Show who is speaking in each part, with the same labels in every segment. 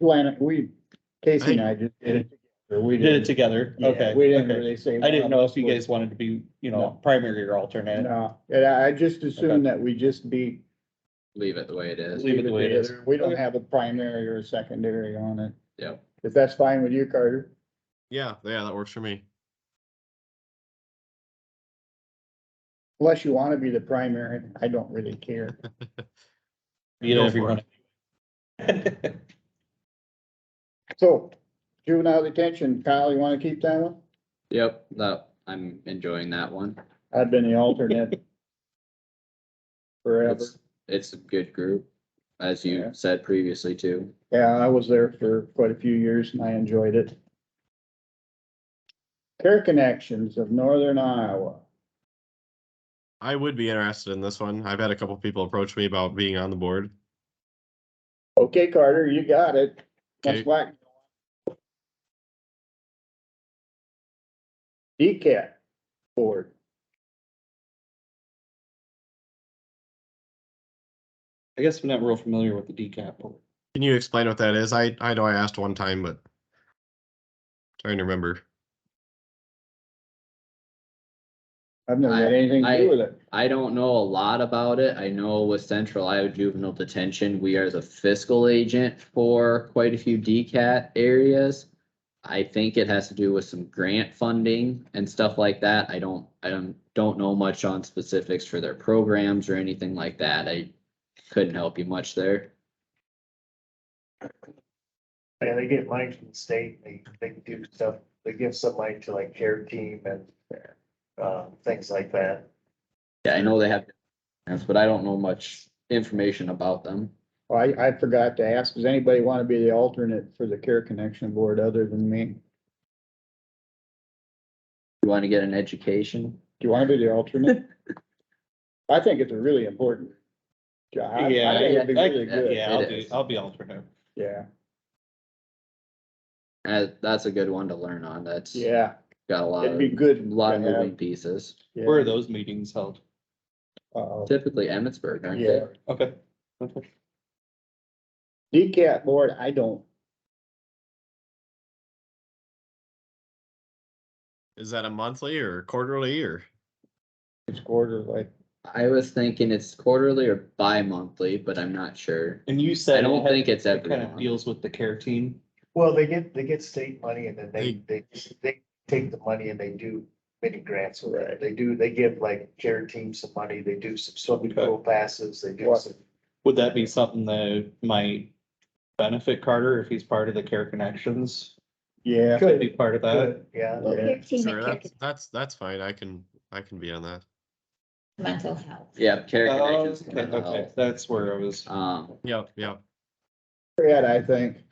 Speaker 1: Atlantic, we, Casey and I just did it. together. We
Speaker 2: You did it
Speaker 1: didn't-
Speaker 2: together,
Speaker 1: yeah,
Speaker 2: okay.
Speaker 1: We didn't
Speaker 2: okay.
Speaker 1: really say.
Speaker 2: I didn't know if you guys wanted to be, you know, primary or alternate.
Speaker 1: No, and I, I just assumed that we just be.
Speaker 3: leave it the way it is.
Speaker 2: Leave it the way it is.
Speaker 1: We don't
Speaker 2: Okay.
Speaker 1: have a primary or a secondary on it.
Speaker 3: Yep.
Speaker 1: If that's fine with you, Carter.
Speaker 4: Yeah, yeah, that works for me.
Speaker 1: Unless you want to be the primary, I don't really care.
Speaker 2: You know,
Speaker 4: Go
Speaker 2: if you
Speaker 4: for
Speaker 2: want. to-
Speaker 1: So juvenile detention, Kyle, you want to keep that one?
Speaker 3: Yep, that, I'm enjoying that one.
Speaker 1: I've been the alternate. Forever.
Speaker 3: It's, it's a good group, as you
Speaker 1: Yeah.
Speaker 3: said previously too.
Speaker 1: Yeah, I was there for quite a few years and I enjoyed it. Care Connections of Northern Iowa.
Speaker 4: I would be interested in this one. I've had a couple people approach me about being on the board.
Speaker 1: Okay, Carter, you got it. That's
Speaker 4: Okay.
Speaker 1: why. DCAT board.
Speaker 2: I guess we're not real familiar with the decap. board.
Speaker 4: Can you explain what that is? I, I know I asked one time, but trying to remember.
Speaker 1: I've never had anything to
Speaker 3: I-
Speaker 1: do with it.
Speaker 3: I don't know a lot about it. I know with Central Iowa Juvenile Detention, we are the fiscal agent for quite a few DCAT areas. I think it has to do with some grant funding and stuff like that. I don't, I don't, don't know much on specifics for their programs or anything like that. I couldn't help you much there.
Speaker 5: Yeah, they get money from the state, they, they do stuff, they give some money to like care team and, uh, things like that.
Speaker 3: Yeah, I know they have, but I don't know much information about them.
Speaker 1: Well, Oh, I, I forgot to ask, does anybody want to be the alternate for the Care Connection Board other than me? Do
Speaker 3: You want to get an education?
Speaker 1: you want to be the alternate? I think it's a really important job. I- I
Speaker 2: Yeah,
Speaker 1: think it'd be
Speaker 2: I-
Speaker 1: really good.
Speaker 2: Yeah, I'll
Speaker 3: It
Speaker 2: do,
Speaker 3: is.
Speaker 2: I'll be alternate.
Speaker 1: Yeah,
Speaker 3: Uh, that's a good one to learn on. That's
Speaker 1: yeah,
Speaker 3: got a lot
Speaker 1: it'd
Speaker 3: of,
Speaker 1: be
Speaker 3: a
Speaker 1: good.
Speaker 3: lot of
Speaker 1: to have,
Speaker 3: moving pieces.
Speaker 1: yeah.
Speaker 2: Where are those meetings held?
Speaker 1: Uh,
Speaker 3: Typically Emmitsburg, aren't
Speaker 1: Yeah.
Speaker 3: they?
Speaker 2: Okay. Okay.
Speaker 1: DCAT board, I don't,
Speaker 4: Is that a monthly or quarterly or?
Speaker 1: it's quarterly.
Speaker 3: I was thinking it's quarterly or bi-monthly, but I'm not sure.
Speaker 2: And you said.
Speaker 3: I don't
Speaker 2: it had-
Speaker 3: think it's
Speaker 2: It
Speaker 3: every
Speaker 2: kind of
Speaker 3: month.
Speaker 2: deals with the care team.
Speaker 5: Well, they get, they get state money and then they, they, they take the money and they do many grants with
Speaker 1: Right.
Speaker 5: it. They do, they give like care team some money, they do some swimming
Speaker 2: Okay.
Speaker 5: pool passes, they do
Speaker 1: What?
Speaker 5: some.
Speaker 2: Would that be something that might benefit Carter if he's part of the care connections?
Speaker 1: Yeah,
Speaker 2: Could be part of that.
Speaker 5: Good, Yeah,
Speaker 1: Yeah.
Speaker 6: Your team
Speaker 4: Sure,
Speaker 6: at
Speaker 4: that's,
Speaker 6: Kick-
Speaker 4: that's, that's fine. I can, I can be on that.
Speaker 6: mental health.
Speaker 3: Yeah, care
Speaker 2: Oh,
Speaker 3: connections.
Speaker 2: okay,
Speaker 3: mental
Speaker 2: okay,
Speaker 3: health.
Speaker 2: that's where I was.
Speaker 3: Um,
Speaker 4: Yep, yep.
Speaker 1: Brad, I think.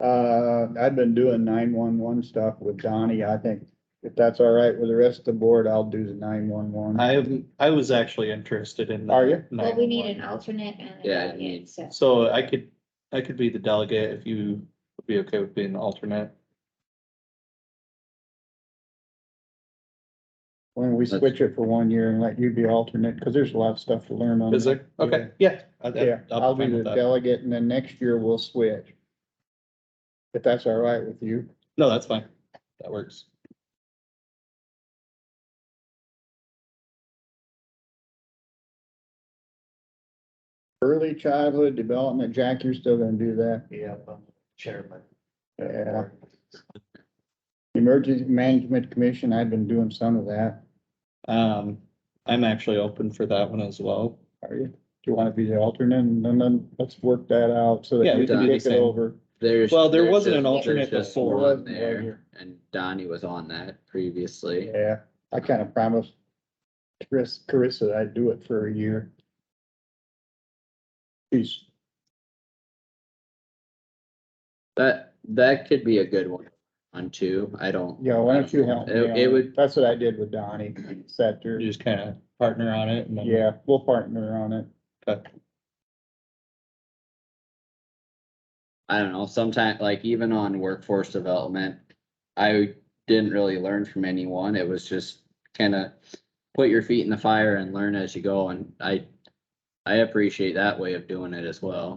Speaker 1: Uh, I've been doing nine-one-one stuff with Donnie. I think if that's all right with the rest of the board, I'll do the nine-one-one.
Speaker 2: I haven't, I was actually interested in.
Speaker 1: Are you?
Speaker 6: Well, we need an
Speaker 2: 911.
Speaker 6: alternate and. a
Speaker 3: Yeah, I
Speaker 6: delegate,
Speaker 3: need-
Speaker 6: So,
Speaker 2: So I could, I could be the delegate if you would be okay with being the alternate.
Speaker 1: When we switch it for one year and let you be alternate, because there's a lot of stuff to learn on.
Speaker 2: Is
Speaker 1: that.
Speaker 2: there? Okay, yeah. I'd-
Speaker 1: Um, Yeah,
Speaker 2: I'll
Speaker 1: I'll be
Speaker 2: fine
Speaker 1: the
Speaker 2: with that.
Speaker 1: delegate and then next year we'll switch. If that's all right with you.
Speaker 2: No, that's fine. That works.
Speaker 1: Early childhood development, Jack, you're still gonna do that.
Speaker 5: yeah, I'm chairman.
Speaker 1: Yeah. Emergency Management Commission, I've been doing some of that.
Speaker 2: Um, I'm actually open for that one as well.
Speaker 1: Are you? Do you want to be the alternate and then- then let's work that out so
Speaker 2: Yeah,
Speaker 1: that
Speaker 2: we
Speaker 1: you
Speaker 2: can
Speaker 1: can
Speaker 2: do the
Speaker 1: kick it
Speaker 2: same.
Speaker 1: over.
Speaker 3: there's.
Speaker 2: Well, there
Speaker 3: there's
Speaker 2: wasn't
Speaker 3: just-
Speaker 2: an alternate
Speaker 3: there's just
Speaker 2: before.
Speaker 3: one
Speaker 1: Wasn't
Speaker 3: There,
Speaker 1: there.
Speaker 3: and Donnie was on that previously.
Speaker 1: Yeah, I kind of promised Chris, Carissa I'd do it for a year. She's,
Speaker 3: That, that could be a good one on two. I don't.
Speaker 1: yeah, why don't you help me?
Speaker 3: It-
Speaker 1: on
Speaker 3: it would-
Speaker 1: That's what I did with Donnie, sat there.
Speaker 2: You just kind of partner on it and then.
Speaker 1: Yeah, we'll partner on it.
Speaker 2: Okay.
Speaker 3: I don't know, sometime, like even on workforce development, I didn't really learn from anyone. It was just kinda put your feet in the fire and learn as you go and I I appreciate that way of doing it as well.